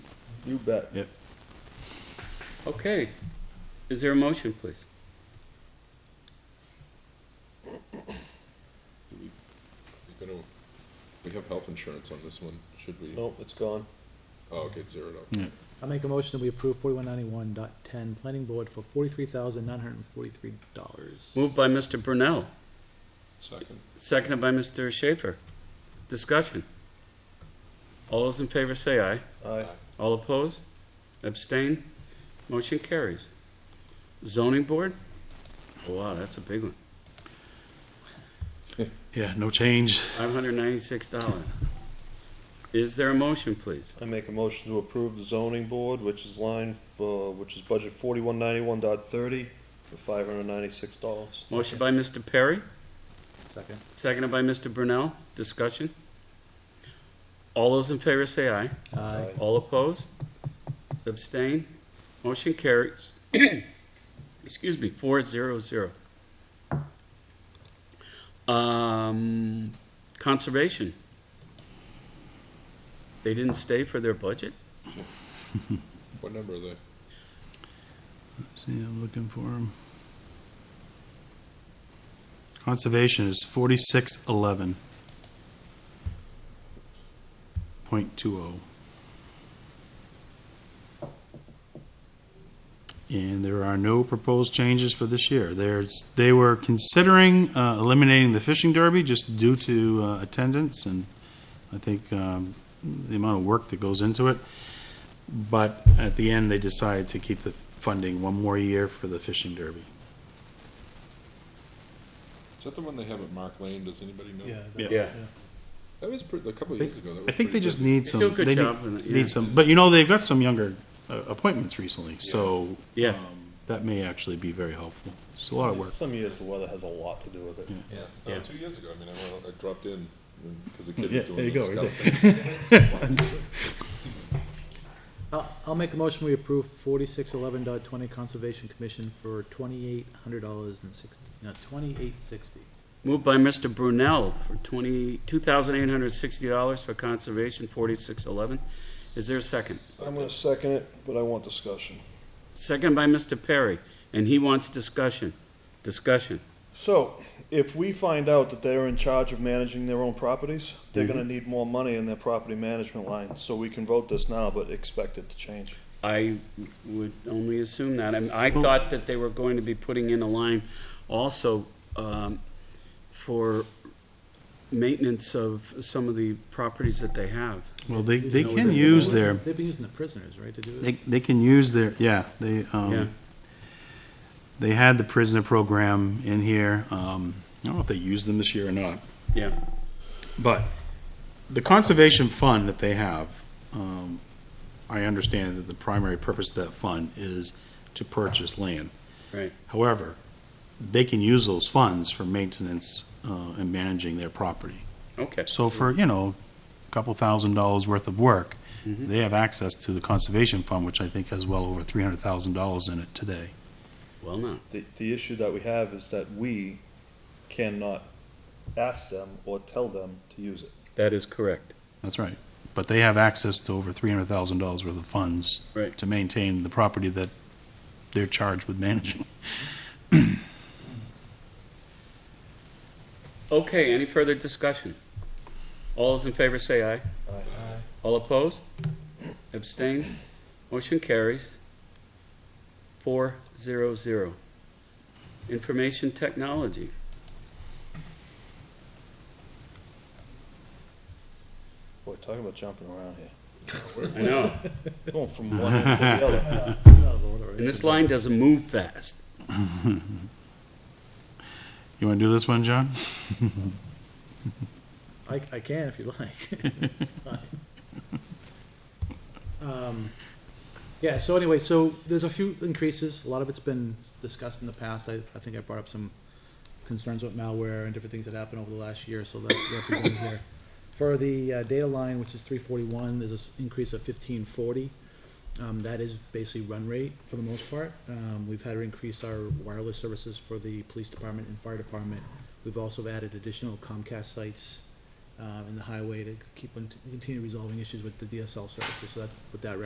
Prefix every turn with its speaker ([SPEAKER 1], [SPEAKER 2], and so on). [SPEAKER 1] You bet.
[SPEAKER 2] Okay. Is there a motion, please?
[SPEAKER 3] You gonna, we have health insurance on this one, should we?
[SPEAKER 1] Nope, it's gone.
[SPEAKER 3] Oh, okay, zero it up.
[SPEAKER 4] I make a motion that we approve forty-one ninety-one dot ten, planning board for forty-three thousand nine hundred and forty-three dollars.
[SPEAKER 2] Moved by Mr. Brunel,
[SPEAKER 3] Second.
[SPEAKER 2] seconded by Mr. Schaefer. Discussion. All those in favor say aye.
[SPEAKER 1] Aye.
[SPEAKER 2] All opposed? Abstain? Motion carries. Zoning board? Oh, Wow, that's a big one.
[SPEAKER 5] Yeah, no change.
[SPEAKER 2] Five hundred ninety-six dollars. Is there a motion, please?
[SPEAKER 1] I make a motion to approve the zoning board, which is line, uh, which is budget forty-one ninety-one dot thirty for five hundred ninety-six dollars.
[SPEAKER 2] Motion by Mr. Perry?
[SPEAKER 4] Second.
[SPEAKER 2] Seconded by Mr. Brunel. Discussion? All those in favor say aye.
[SPEAKER 4] Aye.
[SPEAKER 2] All opposed? Abstain? Motion carries. Excuse me, four zero zero. Um, conservation. They didn't stay for their budget?
[SPEAKER 3] What number are they?
[SPEAKER 5] See, I'm looking for him. Conservation is forty-six eleven. Point two oh. And there are no proposed changes for this year. There's, they were considering uh, eliminating the fishing derby just due to uh, attendance and I think um, the amount of work that goes into it. But at the end, they decided to keep the funding one more year for the fishing derby.
[SPEAKER 3] Is that the one they have at Mark Lane, does anybody know?
[SPEAKER 5] Yeah.
[SPEAKER 3] That was pretty, a couple of
[SPEAKER 5] They-
[SPEAKER 3] years ago. That
[SPEAKER 5] I
[SPEAKER 3] was
[SPEAKER 5] think they
[SPEAKER 3] pretty
[SPEAKER 5] just
[SPEAKER 3] busy.
[SPEAKER 5] need
[SPEAKER 2] They
[SPEAKER 5] some.
[SPEAKER 2] do a good
[SPEAKER 5] they
[SPEAKER 2] job in
[SPEAKER 5] Need,
[SPEAKER 2] it, yeah.
[SPEAKER 5] need some, but you know they've got some younger uh, appointments recently, so
[SPEAKER 2] Yes.
[SPEAKER 5] um, that may actually be very helpful. It's a lot of work.
[SPEAKER 1] Some years the weather has a lot to do with it.
[SPEAKER 5] Yeah.
[SPEAKER 3] Yeah,
[SPEAKER 2] Yeah.
[SPEAKER 3] oh, two years ago, I mean, I, went- I dropped in, because the kid
[SPEAKER 5] Yeah,
[SPEAKER 3] was
[SPEAKER 5] there you
[SPEAKER 3] doing
[SPEAKER 5] go,
[SPEAKER 3] this
[SPEAKER 5] right
[SPEAKER 3] stuff.
[SPEAKER 4] I'll, I'll make a motion we approve forty-six eleven dot twenty, conservation commission for twenty-eight hundred dollars and sixty, no, twenty-eight sixty.
[SPEAKER 2] Moved by Mr. Brunel for twenty, two thousand eight hundred sixty dollars for conservation, forty-six eleven. Is there a second?
[SPEAKER 1] I'm gonna second it, but I want discussion.
[SPEAKER 2] Second by Mr. Perry, and he wants discussion. Discussion.
[SPEAKER 1] So, if we find out that they're in charge of managing their own properties, they're
[SPEAKER 5] Mm-hmm.
[SPEAKER 1] gonna need more money in their property management line, so we can vote this now, but expect it to change.
[SPEAKER 2] I would only assume that. And I thought that they were going to be putting in a line also um, for maintenance of some of the properties that they have.
[SPEAKER 5] Well, they, they
[SPEAKER 2] No,
[SPEAKER 5] can
[SPEAKER 2] they-
[SPEAKER 5] use their
[SPEAKER 4] They've been using the prisoners, right, to do
[SPEAKER 5] they,
[SPEAKER 4] it?
[SPEAKER 5] they can use their yeah they um,
[SPEAKER 2] Yeah.
[SPEAKER 5] they had the prisoner program in here. Um, I don't know if they used them this year or not.
[SPEAKER 2] Yeah.
[SPEAKER 5] But the conservation fund that they have, um, I understand that the primary purpose of that fund is to purchase land.
[SPEAKER 2] Right.
[SPEAKER 5] However, they can use those funds for maintenance, uh, and managing their property.
[SPEAKER 2] Okay.
[SPEAKER 5] So for, you know, a couple thousand dollars worth of work,
[SPEAKER 2] Mhm.
[SPEAKER 5] they have access to the conservation fund, which I think has well over three hundred thousand dollars in it today.
[SPEAKER 2] Well, no.
[SPEAKER 1] The, the issue that we have is that we cannot ask them or tell them to use it.
[SPEAKER 2] That is correct.
[SPEAKER 5] That's right. But they have access to over three hundred thousand dollars worth of funds
[SPEAKER 2] Right.
[SPEAKER 5] to maintain the property that they're charged with managing. Mm-hmm.
[SPEAKER 2] Okay, any further discussion? All those in favor say aye.
[SPEAKER 1] Aye.
[SPEAKER 2] All opposed? Abstain? Motion carries. Four zero zero. Information technology.
[SPEAKER 1] Boy, talking about jumping around here.
[SPEAKER 2] I know.
[SPEAKER 1] Going from one end to the other.
[SPEAKER 4] Oh, Lord, all right.
[SPEAKER 2] And this line doesn't move fast.
[SPEAKER 5] You want to do this one, John?
[SPEAKER 4] I, I can if you like. It's fine. Um, Yeah, so anyway, so there's a few increases. A lot of it's been discussed in the past. I, I think I brought up some concerns with malware and different things that happened over the last year, so that's represented here. For the uh, data line, which is three forty-one, there's an increase of fifteen forty. Um, that is basically run rate for the most part. Um, we've had to increase our wireless services for the police department and fire department. We've also added additional Comcast sites, uh, in the highway to keep on, continue resolving issues with the DSL services, so that's what that